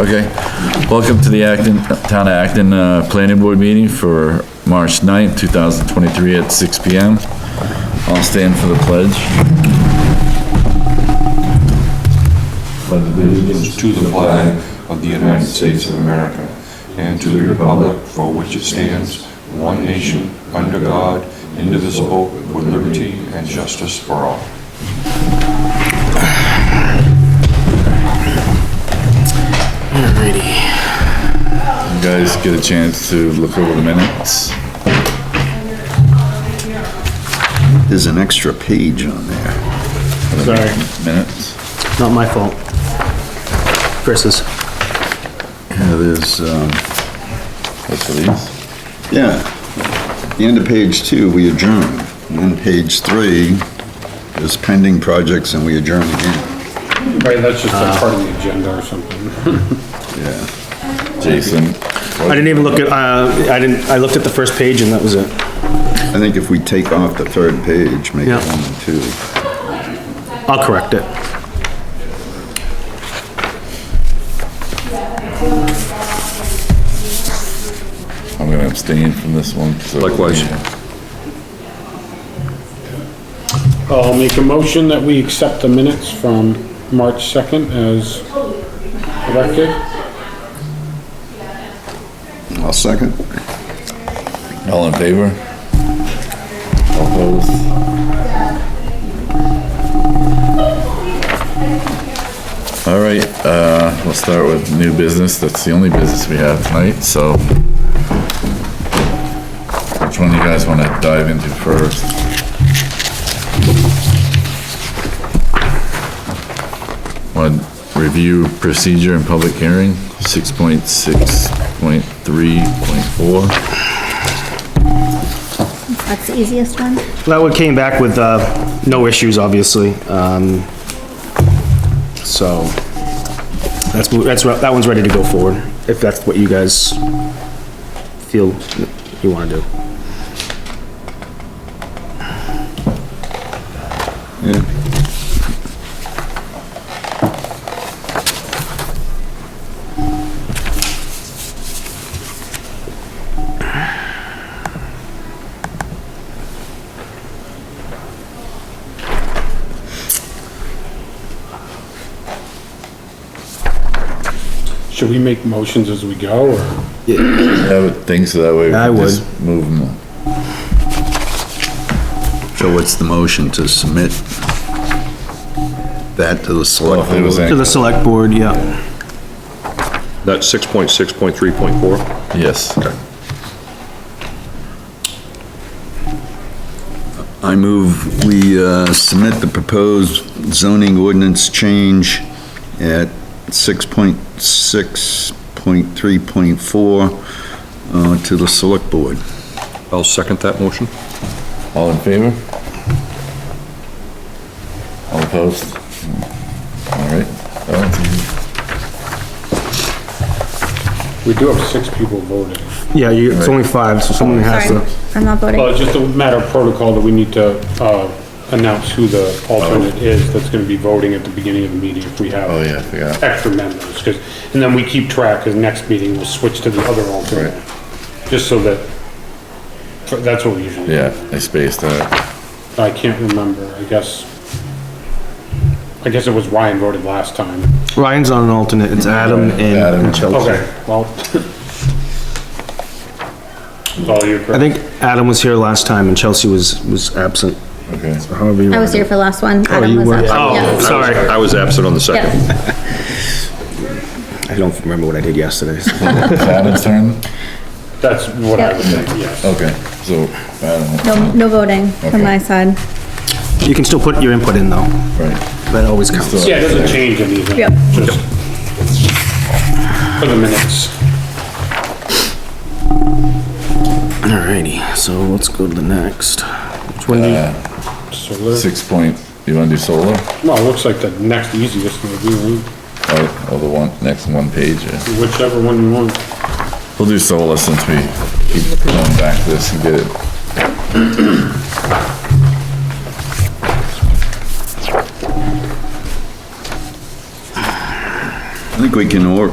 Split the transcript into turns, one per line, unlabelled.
Okay, welcome to the Acton, Town of Acton, uh, Planning Board meeting for March 9th, two thousand twenty-three at six P M. I'll stand for the pledge.
To the flag of the United States of America and to the republic for which it stands, one nation, under God, indivisible, with liberty and justice for all.
You guys get a chance to look over the minutes.
There's an extra page on there.
Sorry,
Minutes.
not my fault. Chris's.
Yeah, there's, um,
What's for these?
yeah. The end of page two, we adjourn. And then page three is pending projects and we adjourn again.
Right, that's just a part of the agenda or something.
Yeah.
Jason.
I didn't even look at, uh, I didn't, I looked at the first page and that was it.
I think if we take off the third page, make it
Yeah.
one and two.
I'll correct it.
I'm gonna abstain from this one. Likewise.
Uh, I'll make a motion that we accept the minutes from March 2nd as corrected.
I'll second.
All in favor? Opposed? All right, uh, we'll start with new business. That's the only business we have tonight, so. Which one you guys wanna dive into first? One, review procedure and public hearing, six point six point three point four.
That's the easiest one?
That one came back with, uh, no issues, obviously, um, so, that's, mo- that's, re- that one's ready to go forward, if that's what you guys feel you wanna do.
Should we make motions as we go, or?
I would think so, that way. we
I
can
would.
just Move them.
So what's the motion to submit that to the
Well,
select?
if Oh, it was
To
any-
the select board, yeah.
That's six point six point three point four?
Yes,
I move we uh, submit the proposed zoning ordinance change at 6.6.3.4 uh, to the select board.
I'll second that motion.
all in favor? All opposed? All right. That one's easy.
We do have six people voting.
Yeah, you, it's only five, so someone has
Sorry,
to,
I'm not
Well,
voting.
it's Uh, just a matter of protocol that we need to, uh, announce who the alternate is that's gonna be voting at the beginning of the meeting if we have.
Oh, yeah, I forgot.
Extra members, 'cause- and then we keep track, cause next meeting we'll switch to the other alternate. Just so that, that's what we usually do.
Yeah, I spaced out.
I can't remember, I guess. I guess it was Ryan voted last time.
Ryan's on an alternate, it's Adam
Adam.
and Chelsea.
Well. It's all your,
I think Adam was here last time and Chelsea was, was absent,
Okay.
however you
I was
want.
here for the last one. Oh,
you were?
Yeah,
Sorry.
I was absent on the second.
yeah.
I don't remember what I did yesterday. so.
It's Adam's turn?
that's what I would think, yes.
Okay, so, uh, Adam,
No, no voting
Okay.
from my side.
You can still put your input in though,
right.
that always counts.
Yeah, it doesn't change anything.
Yep.
Just For the minutes.
Alrighty, so let's go to the next. Which one do you-
So, there-
uh, Six point, you wanna do solar?
well, it looks like the next easiest one would
Or, or the one, next one page, yeah.
be whichever one you want.
We'll do solar since we keep going back to this and get it.
I think we can or-